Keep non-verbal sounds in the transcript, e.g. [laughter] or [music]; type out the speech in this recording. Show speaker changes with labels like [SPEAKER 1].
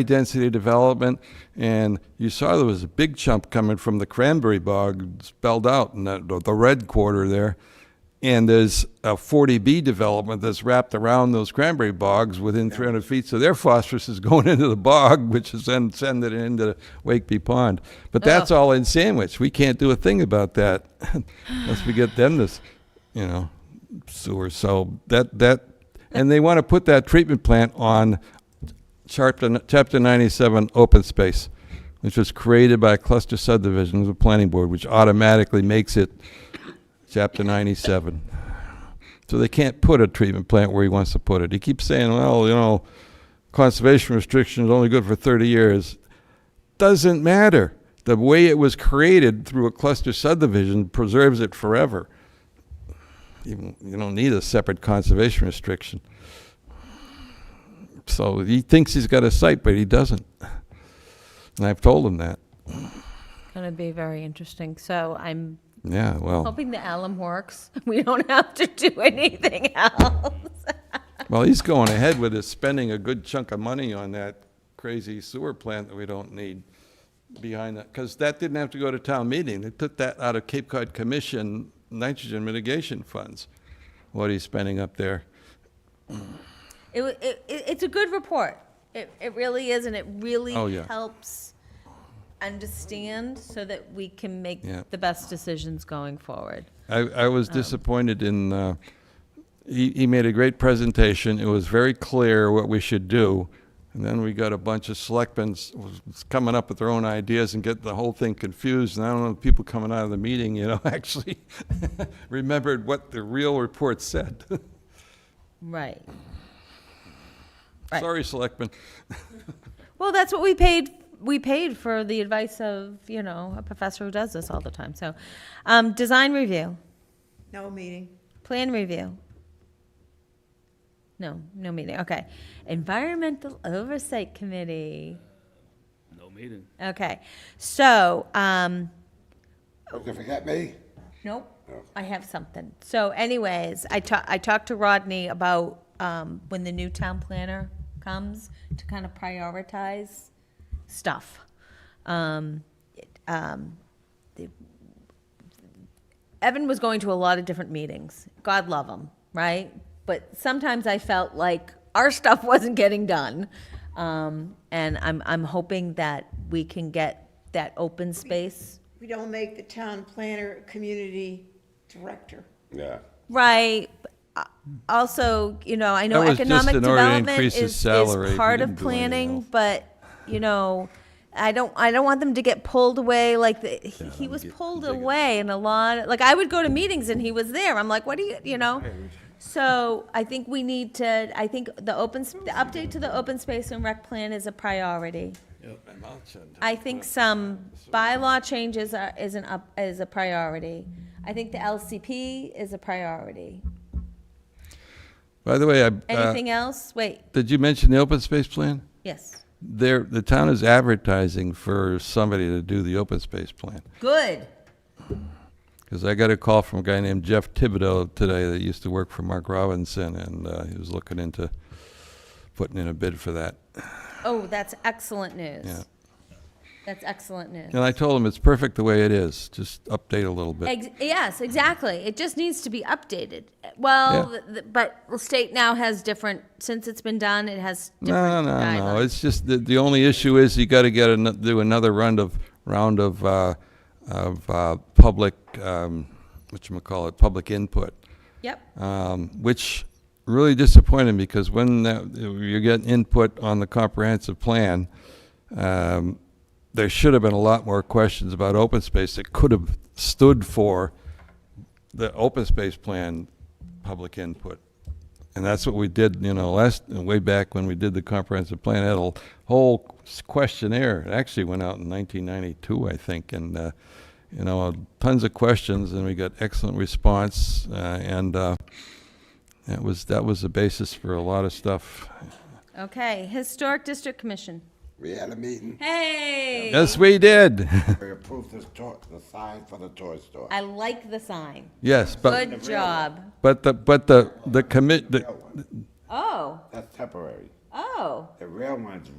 [SPEAKER 1] high-density development, and you saw there was a big chunk coming from the cranberry bog spelled out in the, the red quarter there. And there's a 40B development that's wrapped around those cranberry bogs within 300 feet, so their phosphorus is [laughs] going into the bog, which is then sending it into Wakeby Pond. But that's all in Sandwich. We can't do a thing about that [laughs] unless we get them this, you know, sewer. So that, that, and they want to put that treatment plant on Chapter, Chapter 97 open space, which was created by a cluster subdivision of the planning board, which automatically makes it Chapter 97. So they can't put a treatment plant where he wants to put it. He keeps saying, well, you know, conservation restriction is only good for 30 years. Doesn't matter. The way it was created through a cluster subdivision preserves it forever. You you don't need a separate conservation restriction. So he thinks he's got a site, but he doesn't. And I've told him that.
[SPEAKER 2] Going to be very interesting. So I'm
[SPEAKER 1] Yeah, well,
[SPEAKER 2] hoping the alum works. [laughs] We don't have to do [laughs] anything else. [laughs]
[SPEAKER 1] well, he's going ahead with his spending a good chunk of money on that crazy sewer plant that we don't need behind that, because that didn't have to go to town meeting. They took that out of Cape Cod Commission nitrogen mitigation funds, what he's spending up there.
[SPEAKER 2] It, wa- it, it- it's a good report. It, it really is, and it really
[SPEAKER 1] Oh, yeah.
[SPEAKER 2] helps understand so that we can make
[SPEAKER 1] Yeah.
[SPEAKER 2] the best decisions going forward.
[SPEAKER 1] I, I was
[SPEAKER 2] Oh.
[SPEAKER 1] disappointed in, uh, he, he made a great presentation. It was very clear what we should do. And then we got a bunch of selectmen s- was coming up with their own ideas and getting the whole thing confused. And I don't know, if people coming out of the meeting, you know, [laughs] actually remembered what the real report said. [laughs]
[SPEAKER 2] Right. Right.
[SPEAKER 1] Sorry, selectmen.
[SPEAKER 2] Well, that's what we paid. We paid for the advice of you know a professor who does this all the time. So, um, design review,
[SPEAKER 3] No meeting.
[SPEAKER 2] plan review. No, no meeting. Okay, environmental oversight committee.
[SPEAKER 4] No meeting.
[SPEAKER 2] Okay, so um,
[SPEAKER 5] You forget me?
[SPEAKER 2] Nope. I have something. So anyways, I ta- I talked to Rodney about, um, when the new town planner comes to kind of prioritize stuff. Um, it- um, the- Evan was going to a lot of different meetings. God love him, right? But sometimes I felt like our [laughs] stuff wasn't getting done. Um, and I'm, I'm hoping that we can get that open space
[SPEAKER 3] We don't make the town planner community director.
[SPEAKER 5] Yeah.
[SPEAKER 2] Right. Uh, Also, you know, I know
[SPEAKER 1] That was just
[SPEAKER 2] economic
[SPEAKER 1] in order to
[SPEAKER 2] development
[SPEAKER 1] increase
[SPEAKER 2] is,
[SPEAKER 1] his
[SPEAKER 2] is
[SPEAKER 1] salary if he
[SPEAKER 2] part of
[SPEAKER 1] didn't do anything
[SPEAKER 2] planning,
[SPEAKER 1] else.
[SPEAKER 2] but, you know, I don't, I don't want them to get pulled away like, the- he he was pulled away in a lot, like, I would go to meetings and he was there. I'm like, what do you, you know? So I think we need to, I think the open, s- the update to the open space and rec plan is a priority. I think some bylaw changes are, is an up, is a priority. I think the LCP is a priority.
[SPEAKER 1] By the way, I, uh,
[SPEAKER 2] Anything else? Wait,
[SPEAKER 1] did you mention the open space plan?
[SPEAKER 2] yes.
[SPEAKER 1] There, the town is advertising for somebody to do the open space plan.
[SPEAKER 2] Good.
[SPEAKER 1] Because I got a call from a guy named Jeff Thibodeau today that used to work for Mark Robinson, and uh, he was looking into putting in a bid for that.
[SPEAKER 2] Oh, that's excellent
[SPEAKER 1] Yeah.
[SPEAKER 2] news. That's excellent news.
[SPEAKER 1] And I told him it's perfect the way it is, just update a little bit.
[SPEAKER 2] Ex- Yes, exactly. It just needs to be updated. Well,
[SPEAKER 1] Yeah.
[SPEAKER 2] th- th- but the state now has different, since it's been done, it has
[SPEAKER 1] No,
[SPEAKER 2] different
[SPEAKER 1] no, no,
[SPEAKER 2] guidelines.
[SPEAKER 1] it's just, the, the only issue is you gotta get, ano- do another round of, round of, uh, of uh, public, um, whatchamacallit, public input.
[SPEAKER 2] Yep.
[SPEAKER 1] um, which really disappointed me because when that, you get input on the comprehensive plan, um, there should have been a lot more questions about open space that could have stood for the open space plan public input. And that's what we did, you know, last, way back when we did the comprehensive plan, it had a whole questionnaire. It actually went out in 1992, I think, and, uh, you know, tons of questions, and we got excellent response, uh, and uh, that was, that was the basis for a lot of stuff.
[SPEAKER 2] Okay, Historic District Commission.
[SPEAKER 5] We had
[SPEAKER 2] [laughs]
[SPEAKER 5] a meeting.
[SPEAKER 2] Hey!
[SPEAKER 1] Yes, we did. [laughs]
[SPEAKER 5] We approved this toy, the sign for the toy store.
[SPEAKER 2] I like the sign.
[SPEAKER 1] Yes, but,
[SPEAKER 2] Good job.
[SPEAKER 1] but the, but the, the commit, the
[SPEAKER 5] Real one.
[SPEAKER 2] Oh,
[SPEAKER 5] That's temporary.
[SPEAKER 2] oh,
[SPEAKER 5] The real one's